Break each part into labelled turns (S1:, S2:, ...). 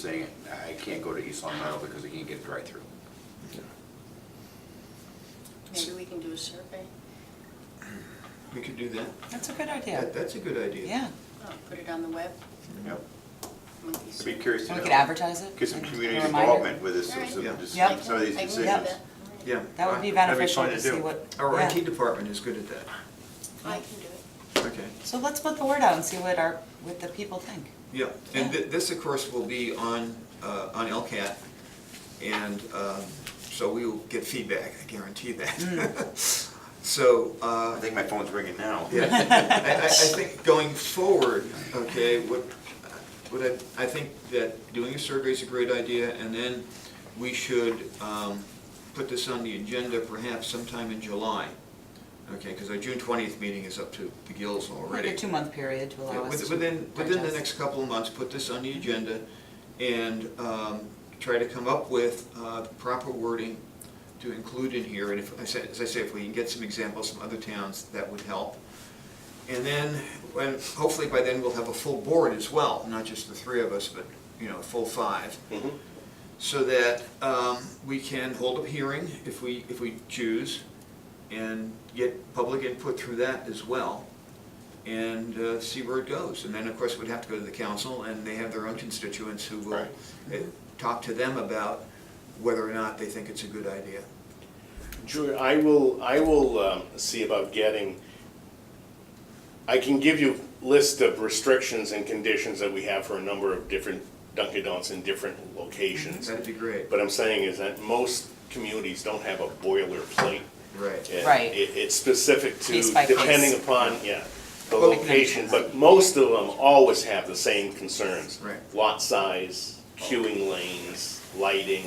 S1: saying, I can't go to East Long Meadow because I can't get a drive-through.
S2: Maybe we can do a survey,
S3: We could do that.
S4: That's a good idea.
S3: That, that's a good idea.
S4: Yeah,
S2: Oh, put it on the web,
S1: Yep.
S2: monkey
S1: I'd be
S2: survey.
S1: curious to
S4: and
S1: know.
S4: we could advertise it.
S1: Get some
S4: and
S1: community
S4: a reminder.
S1: involvement with this,
S2: All right.
S1: some-
S3: Yeah.
S1: just
S4: Yep.
S1: some of these
S2: I can do
S1: decisions.
S2: that.
S3: Yeah.
S4: That would be
S1: That'd be
S4: beneficial
S1: fun
S4: to
S1: to
S4: see
S1: do.
S4: what.
S3: Our
S4: yeah.
S3: IT department is good at that.
S2: I can do it.
S3: Okay,
S4: So let's put the word out and see what our, what the people think.
S3: yeah. And
S4: Yeah.
S3: thi- this, of course, will be on, uh, on LCAT, and um, so we will get feedback, I guarantee
S4: Mm.
S3: that. So, uh,
S1: Oh, I think my phone's ringing now.
S3: Yeah, I, I, I think going forward, okay, what, what I, I think that doing a survey is a great idea, and then we should, um, put this on the agenda perhaps sometime in July. Okay, because our June twentieth meeting is up to the gills already.
S4: Like a two-month period to
S3: Yeah,
S4: allow us
S3: with-
S4: to.
S3: Within, within the
S4: digest.
S3: next couple of months, put this on the agenda and um, try to come up with uh, proper wording to include in here. And if, I said- as I say, if we can get some examples from other towns, that would help. And then, when, hopefully by then, we'll have a full board as well, not just the three of us, but, you know, a full five. So that um, we can hold a hearing if we, if we choose and get public input through that as well and uh, see where it goes. And then, of course, we'd have to go to the council, and they have their own constituents who will
S1: Right.
S3: uh, talk to them about whether or not they think it's a good idea.
S5: Julia, I will, I will um, see about getting, I can give you list of restrictions and conditions that we have for a number of different Dunkin' Donuts in different locations.
S3: That'd be great.
S5: But I'm saying is that most communities don't have a boilerplate.
S3: Right.
S5: And
S4: Right.
S5: It, it's specific to,
S4: Case by case.
S5: depending upon, yeah, the
S3: Well-
S5: location, but most of them always have the same concerns.
S3: Right.
S5: Lot size, queuing lanes, lighting,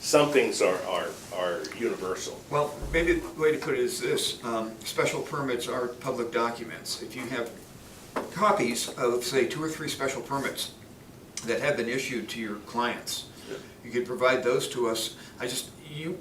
S5: some things are, are, are universal.
S3: Well, maybe the way to put it is this, um, special permits are public documents. If you have copies of, say, two or three special permits that have been issued to your clients, you could provide those to us. I just, you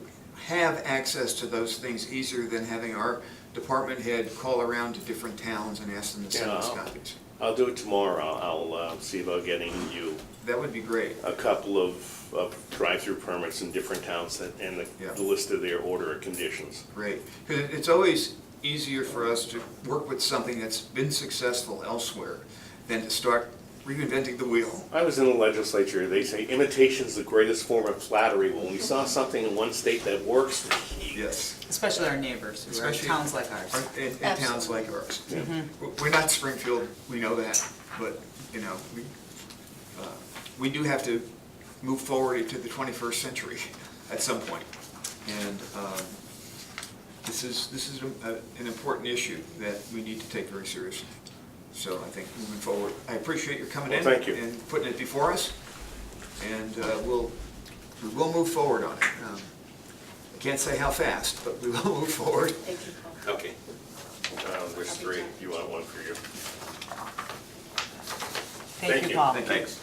S3: have access to those things easier than having our department head call around to different towns and ask them to send us
S5: Yeah.
S3: copies.
S5: I'll do it tomorrow, I'll, uh, see about getting you
S3: That would be great.
S5: a couple of, of drive-through permits in different towns that, and the,
S3: Yeah.
S5: the list of their order of conditions.
S3: Great, because it's always easier for us to work with something that's been successful elsewhere than to start reinventing the wheel.
S5: I was in the legislature, they say imitation's the greatest form of flattery, when we saw something in one state that works,
S3: Yes.
S4: Especially our neighbors, who are
S3: Especially-
S4: towns like ours. Mm-hmm.
S3: Or- In, in towns like ours. We're- We're not Springfield, we know that, but, you know, we, uh, we do have to move forward into the 21st century at some point. And um, this is, this is a- a- an important issue that we need to take very seriously. So I think moving forward, I appreciate your coming in.
S5: Well, thank you.
S3: And putting it before us, and uh, we'll, we will move forward on it. Um, I can't say how fast, but we will move forward.
S2: Thank you, Paul.
S5: Okay. Uh, There's three, you want one for you?
S4: Thank you, Paul.
S3: Thank you.
S1: Thanks.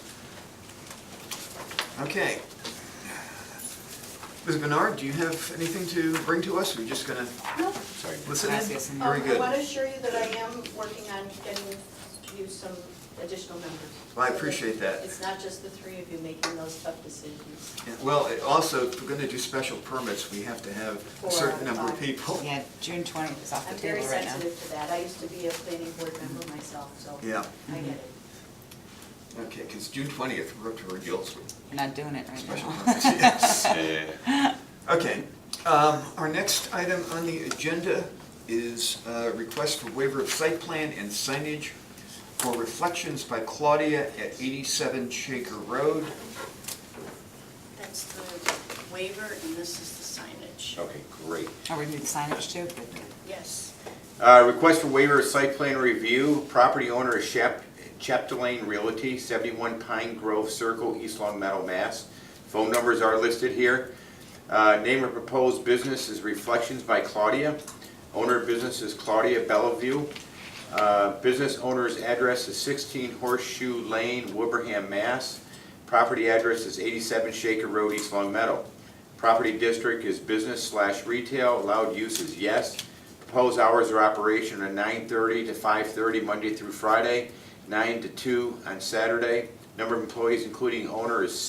S3: Okay. Ms. Bernard, do you have anything to bring to us? We're just gonna
S1: Sorry.
S3: listen in?
S4: Gracias, señor.
S3: Very
S6: Um, I want to
S3: good.
S6: assure you that I am working on getting you some additional members.
S3: Well, I appreciate that.
S6: It's not just the three of you making those tough decisions.
S3: And- Well, it- also, if we're gonna do special permits, we have to have a certain number of people.
S4: Yeah, June twentieth is off
S6: I'm
S4: the
S6: very
S4: table right now.
S6: sensitive to that. I used to be a planning board member myself, so
S3: Yeah.
S6: I get it.
S3: Okay, because June twentieth, we're up to our gills with
S4: I'm not doing it right
S3: special
S4: now.
S3: permits, yes.
S1: Yeah, yeah, yeah.
S3: Okay, um, our next item on the agenda is uh request for waiver of site plan and signage for Reflections by Claudia at eighty-seven Shaker Road.
S2: That's the waiver, and this is the signage.
S1: Okay, great.
S4: Are we doing signage too?
S2: Yes.
S1: Uh, Request for waiver of site plan review. Property owner is Shep- Chapdelaine Realty, 71 Pine Grove Circle, East Long Meadow, Mass. Phone numbers are listed here. Uh, Name of proposed business is Reflections by Claudia. Owner of business is Claudia Bellevue. Uh, Business owner's address is 16 Horseshoe Lane, Wilbraham, Mass. Property address is 87 Shaker Road, East Long Meadow. Property district is business slash retail, allowed use is yes. Proposed hours of operation are 9:30 to 5:30 Monday through Friday, 9 to 2 on Saturday. Number of employees, including owner, is six.